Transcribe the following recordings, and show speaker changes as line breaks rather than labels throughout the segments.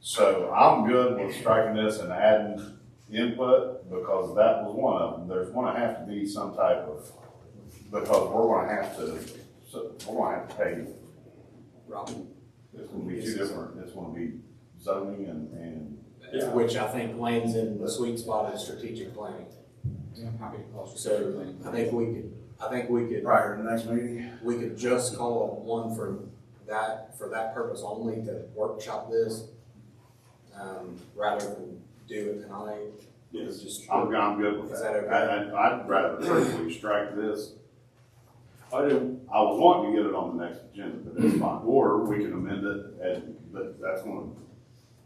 So I'm good with striking this and adding input, because that was one of them, there's gonna have to be some type of, because we're gonna have to, so, we're gonna have to pay,
Robin,
it's gonna be two different, it's gonna be zoning and, and,
Yeah.
which I think lands in the sweet spot of strategic planning.
I'm happy to call it
So I think we could, I think we could,
Prior to the next meeting?
we could just call one for that, for that purpose only to workshop this. Um, rather than do it tonight.
Yes.
Just-
I'm, I'm good with
Is
that.
that okay?
And I'd rather personally strike this,
I do,
I was wanting to get it on the next agenda, but it's fine, or we can amend it, and, but that's gonna,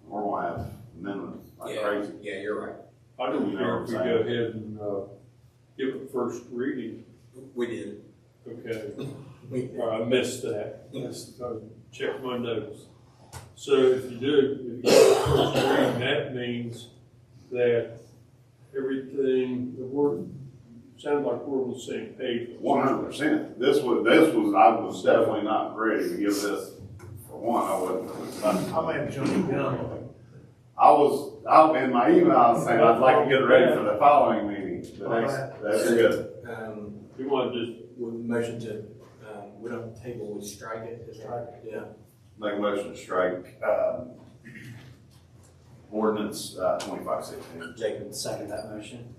we're gonna have amendments like
Yeah,
crazy.
yeah, you're right.
I do
You know
care
what
if we
I'm
go ahead and, uh, give it first reading,
We did.
okay?
We,
Or I missed that, That's- I checked my notes. So if you do, if you go to first reading, that means that everything, the word, sounds like we're on the same page.
One hundred percent. This was, this was, I was definitely not ready to give this, for one, I wasn't.
I may have jumped the gun.
I was, I, in my email, I was saying I'd like to get ready for the following meeting, the next, that's good.
um,
You want to just,
we motion to, um, we don't table, we strike it. is that- Yeah.
Make a motion to strike, um, ordinance, uh, twenty-five sixteen.
Jacob, second that motion.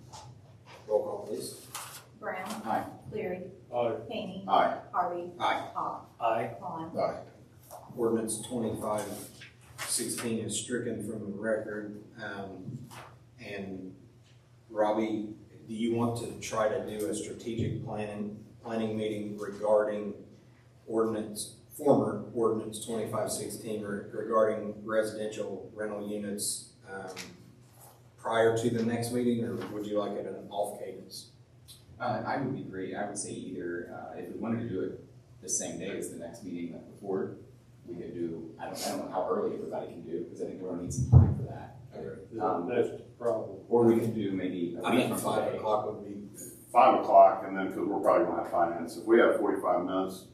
Roll call, please.
Brown.
Aye.
Cleary.
uh,
Hany.
Aye.
Harvey.
Aye.
Hawk.
Aye.
Vaughn.
Aye.
Ordinance twenty-five sixteen is stricken from the record. Um, and Robbie, do you want to try to do a strategic planning, planning meeting regarding ordinance, former ordinance twenty-five sixteen regarding residential rental units, um, prior to the next meeting, or would you like it an off cadence?
Uh, I would be great, I would say either, uh, if we wanted to do it the same day as the next meeting, like before, we could do, I don't, I don't know how early everybody can do, because I think we're gonna need some time for that. Um,
that's the problem.
Or we could do maybe a
I
week
think
from
five
today.
o'clock would be
Five o'clock, and then, cause we're probably gonna have finance, if we have forty-five minutes,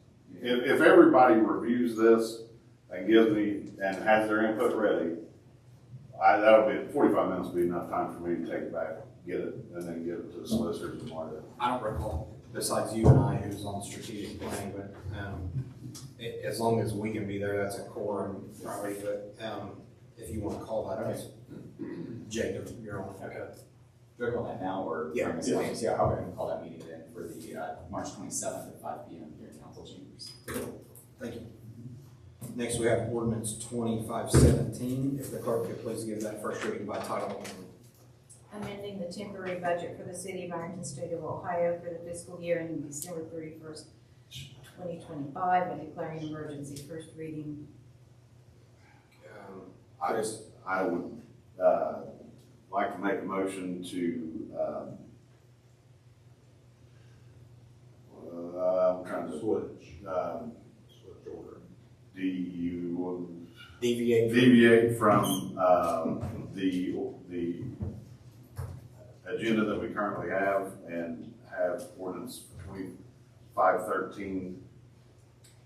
If, if everybody reviews this and gives me, and has their input ready, I, that'll be, forty-five minutes will be enough time for me to take it back, get it, and then give it to the solicitors and mark it.
I don't recall, besides you and I who's on strategic planning, but, um, a- as long as we can be there, that's a quorum probably, but, um, if you wanna call that, okay. Jacob, you're on.
Okay. Do I call that now, or?
Yeah.
or miss Williams? Yeah, I would call that meeting then for the, uh, March twenty-seventh at five P M here in council chambers.
Thank you. Next, we have ordinance twenty-five seventeen, if the clerk could please give that first reading by title only.
Amending the temporary budget for the city of Ironton, state of Ohio for the fiscal year ending December thirty-first, twenty twenty-five, and declaring emergency. First reading.
Um,
I just, I would, uh, like to make a motion to, um, uh, I'm trying to. Switch. Um. Switch order. Do you,
Deviate.
deviate from, um, the, the agenda that we currently have and have ordinance twenty-five thirteen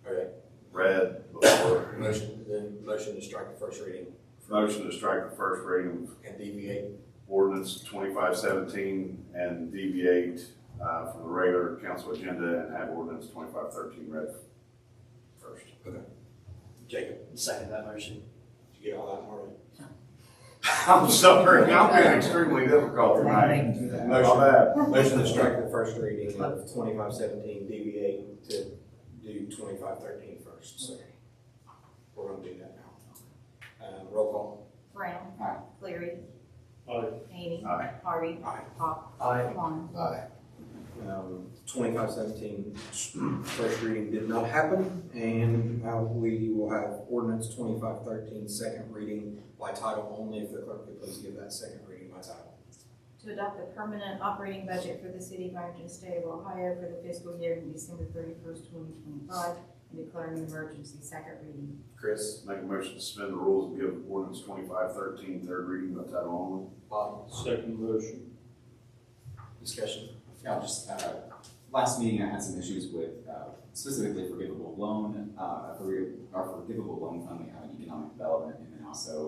Okay,
read before.
motion, then motion to strike the first reading
Motion to strike the first reading of
and deviate.
ordinance twenty-five seventeen and deviate, uh, from the regular council agenda and have ordinance twenty-five thirteen read first.
Jacob, second that motion. Did you get all that, Marty?
I'm sorry, I'm being extremely difficult tonight.
Motion.
My bad.
Motion to strike the first reading of twenty-five seventeen, deviate to do twenty-five thirteen first, so we're gonna do that now. Uh, roll call.
Brown.
Aye.
Cleary.
Aye.
Hany.
Aye.
Harvey.
Aye.
Hawk.
Aye.
Vaughn.
Um, twenty-five seventeen, first reading did not happen, and now we will have ordinance twenty-five thirteen, second reading by title only, if the clerk could please give that second reading by title.
To adopt the permanent operating budget for the city of Ironton, state of Ohio for the fiscal year ending December thirty-first, twenty twenty-five, and declaring an emergency. Second reading.
Chris,
Make a motion to suspend the rules and give ordinance twenty-five thirteen third reading by title
Bob,
Second motion,
discussion.
Yeah, I'll just, uh, last meeting I had some issues with, uh, specifically forgivable loan, uh, a forgi- our forgivable loan fund, we have an economic development, and then also